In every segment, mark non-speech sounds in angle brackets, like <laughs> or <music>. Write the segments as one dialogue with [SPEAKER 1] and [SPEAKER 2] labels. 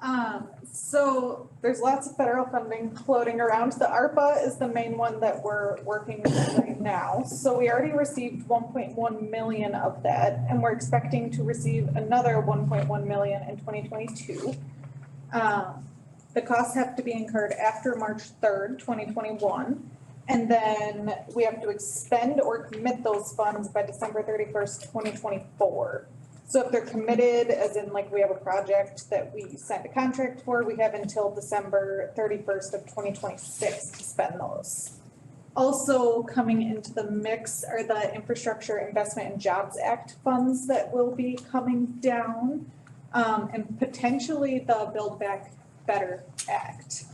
[SPEAKER 1] Um, so there's lots of federal funding floating around. The ARPA is the main one that we're working with right now. So we already received one point one million of that and we're expecting to receive another one point one million in twenty twenty-two. Um, the costs have to be incurred after March third, twenty twenty-one. And then we have to expend or commit those funds by December thirty-first, twenty twenty-four. So if they're committed, as in like we have a project that we signed a contract for, we have until December thirty-first of twenty twenty-six to spend those. Also coming into the mix are the Infrastructure Investment and Jobs Act funds that will be coming down. um, and potentially the Build Back Better Act.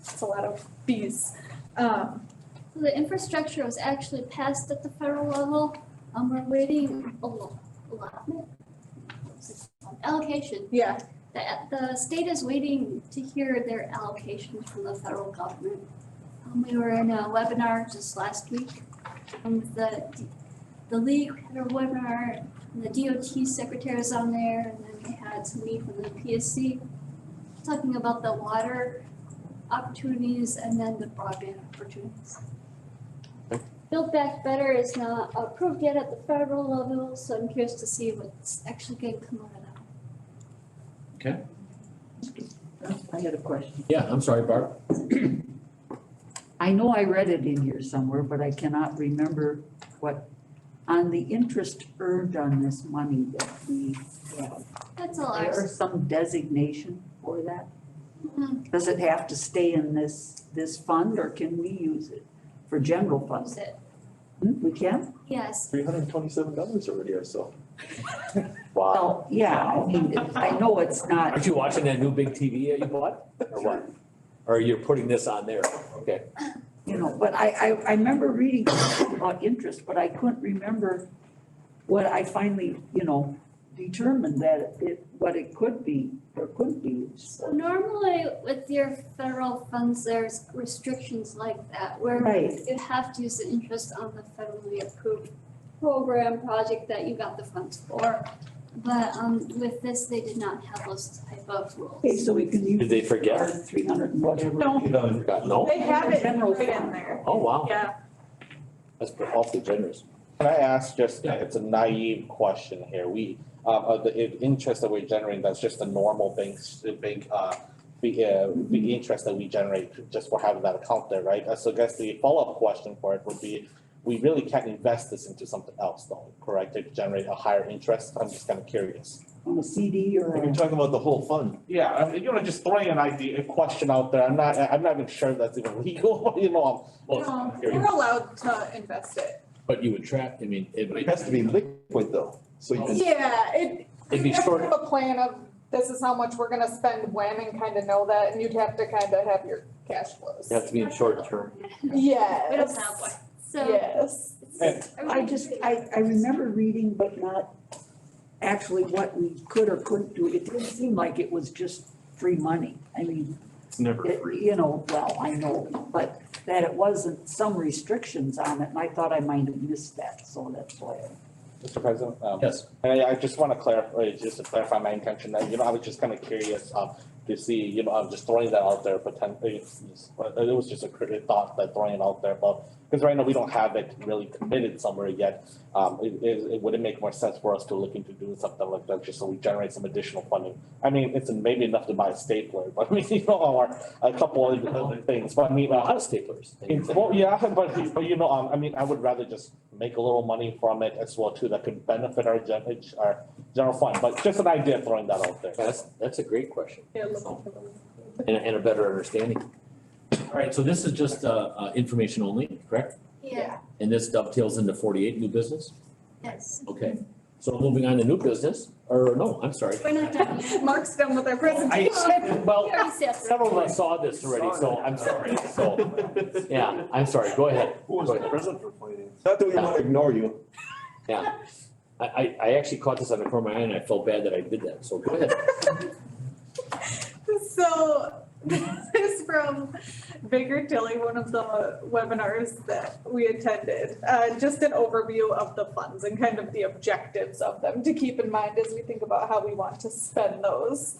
[SPEAKER 1] It's a lot of Bs. Um,
[SPEAKER 2] The infrastructure was actually passed at the federal level. Um, we're waiting a lot, allotment. Allocation.
[SPEAKER 1] yeah,
[SPEAKER 2] The, the state is waiting to hear their allocations from the federal government. Um, we were in a webinar just last week. Um, the, the league had a webinar, and the DOT secretary was on there, and then we had somebody from the PSC talking about the water opportunities and then the broadband opportunities. Build Back Better is not approved yet at the federal level, so I'm curious to see what's actually gonna come out of that.
[SPEAKER 3] I had a question.
[SPEAKER 4] Yeah, I'm sorry, Barb.
[SPEAKER 3] I know I read it in here somewhere, but I cannot remember what, on the interest earned on this money that we have.
[SPEAKER 2] That's all I
[SPEAKER 3] There is some designation for that?
[SPEAKER 2] Mm.
[SPEAKER 3] Does it have to stay in this, this fund or can we use it for general funds?
[SPEAKER 2] use it.
[SPEAKER 3] Hmm, We can?
[SPEAKER 2] Yes,
[SPEAKER 5] Three hundred and twenty-seven dollars already
[SPEAKER 1] <laughs>
[SPEAKER 5] or
[SPEAKER 1] Oh.
[SPEAKER 5] so. Wow.
[SPEAKER 3] Well, yeah, I mean, I know it's not,
[SPEAKER 4] Aren't you watching that new big TV that you bought? Or what? Or you're putting this on there? Okay.
[SPEAKER 3] you know, but I, I, I remember reading about interest, but I couldn't remember what I finally, you know, determined that it, what it could be or couldn't be used
[SPEAKER 2] so
[SPEAKER 3] for.
[SPEAKER 2] normally with your federal funds, there's restrictions like that where
[SPEAKER 3] Right,
[SPEAKER 2] you have to use the interest on the federally approved program project that you got the funds for. But um with this, they did not have those type of
[SPEAKER 3] okay,
[SPEAKER 2] rules.
[SPEAKER 3] so we can
[SPEAKER 4] Did
[SPEAKER 3] use
[SPEAKER 4] they
[SPEAKER 3] our
[SPEAKER 4] forget?
[SPEAKER 3] three hundred and whatever.
[SPEAKER 1] No.
[SPEAKER 4] You haven't forgotten? No?
[SPEAKER 1] they have it
[SPEAKER 3] General
[SPEAKER 1] right in
[SPEAKER 3] fund.
[SPEAKER 1] there.
[SPEAKER 4] Oh, wow.
[SPEAKER 1] Yeah,
[SPEAKER 4] That's awfully generous.
[SPEAKER 5] Can I ask just,
[SPEAKER 4] Yeah.
[SPEAKER 5] it's a naive question here. We, uh, uh, the i- interest that we're generating, that's just the normal banks, the bank, uh, the, uh, the interest that we generate just for having that account there, right? Uh, So I guess the follow-up question for it would be, we really can't invest this into something else though, correct? To generate a higher interest? I'm just kind of curious.
[SPEAKER 3] On a CD or
[SPEAKER 6] You're
[SPEAKER 3] a,
[SPEAKER 6] talking about the whole fund.
[SPEAKER 5] Yeah, I mean, you know, just throwing an idea, a question out there. I'm not, I- I'm not even sure that's even <laughs> legal, you know, um,
[SPEAKER 4] Well, it's
[SPEAKER 1] no,
[SPEAKER 4] kinda
[SPEAKER 1] we're
[SPEAKER 4] curious.
[SPEAKER 1] allowed to invest it.
[SPEAKER 4] But you would track, I mean, it
[SPEAKER 6] It
[SPEAKER 4] might,
[SPEAKER 6] has to be liquid though, so you can,
[SPEAKER 1] Yeah, it,
[SPEAKER 4] it'd be
[SPEAKER 1] You'd have to
[SPEAKER 4] short,
[SPEAKER 1] have a plan of this is how much we're gonna spend when and kind of know that, and you'd have to kind of have your cash flows.
[SPEAKER 4] it'd have to be in short term.
[SPEAKER 1] Yes.
[SPEAKER 2] We don't have one, so.
[SPEAKER 1] Yes.
[SPEAKER 3] I just, I, I remember reading, but not actually what we could or couldn't do. It didn't seem like it was just free money. I mean,
[SPEAKER 6] it's never
[SPEAKER 3] it,
[SPEAKER 6] free.
[SPEAKER 3] you know, well, I know, but that it wasn't some restrictions on it and I thought I might have missed that, so that's why.
[SPEAKER 5] Mr. President. um,
[SPEAKER 4] Yes.
[SPEAKER 5] And I, I just want to clarify, just to clarify my intention, that, you know, I was just kind of curious, um, to see, you know, I'm just throwing that out there, potentially, it's- it's- but it was just a crit- thought that throwing it out there, but, because right now we don't have it really committed somewhere yet. Um, it, it, it wouldn't make more sense for us to look into doing something like that, just so we generate some additional funding. I mean, it's maybe enough to buy a stapler, <laughs> but, I mean, you know, or a couple of other things, but I mean,
[SPEAKER 4] A lot
[SPEAKER 5] uh,
[SPEAKER 4] of staplers.
[SPEAKER 5] it's, well, yeah, <laughs> but, but you know, um, I mean, I would rather just make a little money from it as well too, that could benefit our gen, our general fund, but just an idea throwing that out there.
[SPEAKER 4] That's, that's a great question
[SPEAKER 1] Yeah, look for them.
[SPEAKER 4] and, a- and a better understanding. All right, so this is just, uh, uh, information only, correct?
[SPEAKER 2] Yeah,
[SPEAKER 4] And this dovetails into forty-eight new business?
[SPEAKER 1] Mm-hmm.
[SPEAKER 2] yes,
[SPEAKER 4] Okay. So moving on to new business, or no, I'm sorry.
[SPEAKER 2] we're not done
[SPEAKER 1] <laughs>
[SPEAKER 2] yet.
[SPEAKER 1] Mark's done with our presentation.
[SPEAKER 4] I,
[SPEAKER 1] <laughs>
[SPEAKER 4] well,
[SPEAKER 2] We already said that.
[SPEAKER 4] Several of us saw this already, so I'm sorry, so, yeah, I'm sorry, go ahead.
[SPEAKER 6] Who was
[SPEAKER 4] Go
[SPEAKER 6] the
[SPEAKER 4] ahead.
[SPEAKER 6] president for finance? Not that we want to ignore you.
[SPEAKER 4] I, I, I actually caught this on the corner of my eye and I felt bad that I did that, so go ahead.
[SPEAKER 1] So <laughs> this is from Baker Tilly, one of the webinars that we attended. Uh, just an overview of the funds and kind of the objectives of them to keep in mind as we think about how we want to spend those.